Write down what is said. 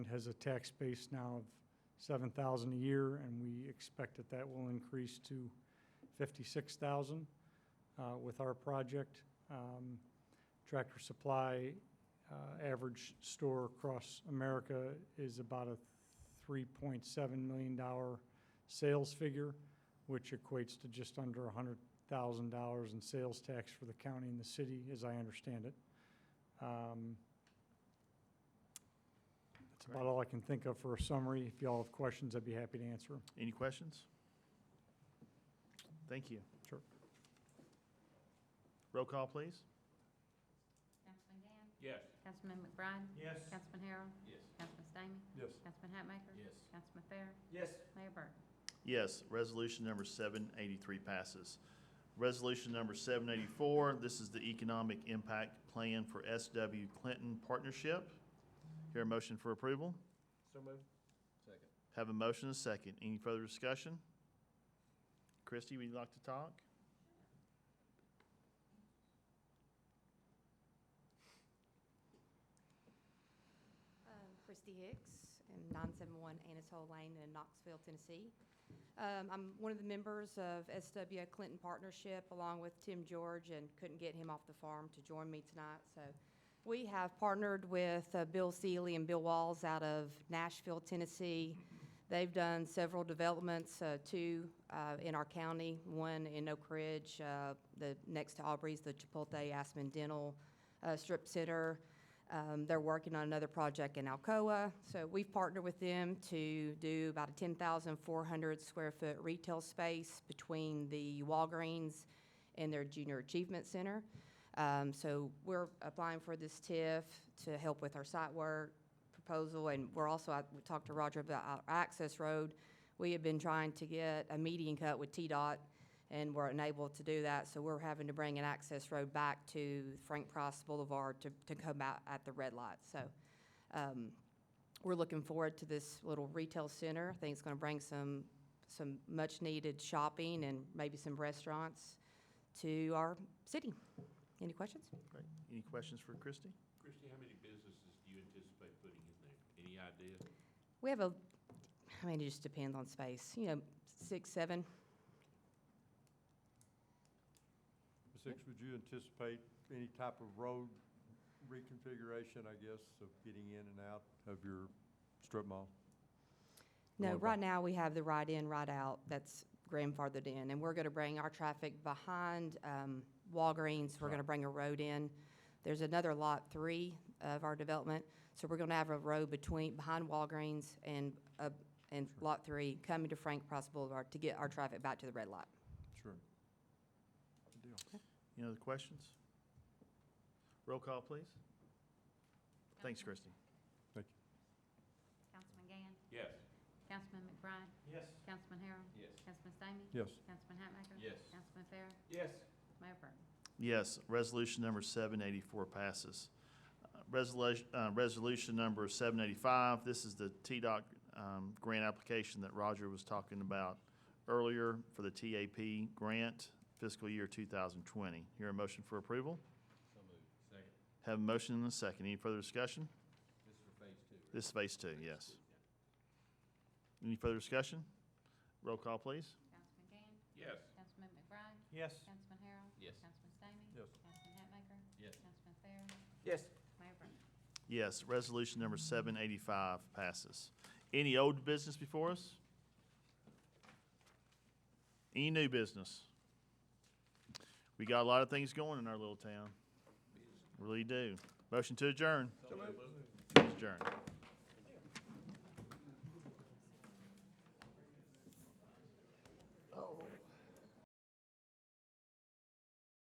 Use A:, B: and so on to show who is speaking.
A: has a tax base now of seven thousand a year, and we expect that that will increase to fifty-six thousand uh, with our project. Um, Tractor Supply uh, average store across America is about a three point seven million dollar sales figure, which equates to just under a hundred thousand dollars in sales tax for the county and the city, as I understand it. Um, That's about all I can think of for a summary. If y'all have questions, I'd be happy to answer 'em.
B: Any questions? Thank you.
A: Sure.
B: Roll call, please.
C: Councilman Gann?
D: Yes.
C: Councilman McBride?
D: Yes.
C: Councilman Harrell?
D: Yes.
C: Councilman Stamey?
D: Yes.
C: Councilman Hatmaker?
D: Yes.
C: Councilman Fair?
D: Yes.
C: Mayor Burton?
B: Yes, resolution number seven eighty-three passes. Resolution number seven eighty-four, this is the Economic Impact Plan for SW Clinton Partnership. Hear a motion for approval?
D: So moved. Second.
B: Have a motion and a second. Any further discussion? Christie, would you like to talk?
E: Uh, Christy Hicks, and 971 Anatole Lane in Knoxville, Tennessee. Um, I'm one of the members of SW Clinton Partnership, along with Tim George, and couldn't get him off the farm to join me tonight, so. We have partnered with uh, Bill Seeley and Bill Walls out of Nashville, Tennessee. They've done several developments, uh, two uh, in our county, one in Oak Ridge, uh, the, next to Aubrey's, the Chipotle Aspen Dental uh, Strip Center. Um, They're working on another project in Alcoa, so we've partnered with them to do about a 10,400 square foot retail space between the Walgreens and their Junior Achievement Center. Um, So we're applying for this TIF to help with our site work proposal, and we're also, I we talked to Roger about our access road. We have been trying to get a median cut with TDOT, and we're unable to do that, so we're having to bring an access road back to Frank Price Boulevard to, to come out at the red light, so, um, we're looking forward to this little retail center. I think it's gonna bring some, some much-needed shopping and maybe some restaurants to our city. Any questions?
B: Great. Any questions for Christie?
D: Christie, how many businesses do you anticipate putting in there? Any idea?
E: We have a, I mean, it just depends on space, you know, six, seven,
F: Ms. Hicks, would you anticipate any type of road reconfiguration, I guess, of getting in and out of your strip mall?
E: No,
F: Going
E: right
F: back-
E: now, we have the right in, right out, that's grandfathered in, and we're gonna bring our traffic behind, um, Walgreens, we're gonna bring a road in. There's another lot three of our development, so we're gonna have a road between, behind Walgreens and, uh, and lot three, coming to Frank Price Boulevard to get our traffic back to the red light.
F: Sure.
B: Any other questions? Roll call, please. Thanks, Christie.
C: Councilman Gann?
D: Yes.
C: Councilman McBride?
D: Yes.
C: Councilman Harrell?
D: Yes.
C: Councilman Stamey?
F: Yes.
C: Councilman Hatmaker?
D: Yes.
C: Councilman Fair?
D: Yes.
C: Mayor Burton?
B: Yes, resolution number seven eighty-four passes. Uh, Resolution, uh, resolution number seven eighty-five, this is the TDOT, um, grant application that Roger was talking about earlier for the TAP grant fiscal year two thousand twenty. Hear a motion for approval?
D: So moved. Second.
B: Have a motion and a second. Any further discussion?
D: This is for phase two, right?
B: This is phase two, yes. Any further discussion? Roll call, please.
C: Councilman Gann?
D: Yes.
C: Councilman McBride?
D: Yes.
C: Councilman Harrell?
D: Yes.
C: Councilman Stamey?
F: Yes.
C: Councilman Hatmaker?
D: Yes.
C: Councilman Fair?
D: Yes.
C: Mayor Burton?
B: Yes, resolution number seven eighty-five passes. Any old business before us? Any new business? We got a lot of things going in our little town. Really do. Motion to adjourn. Adjourn.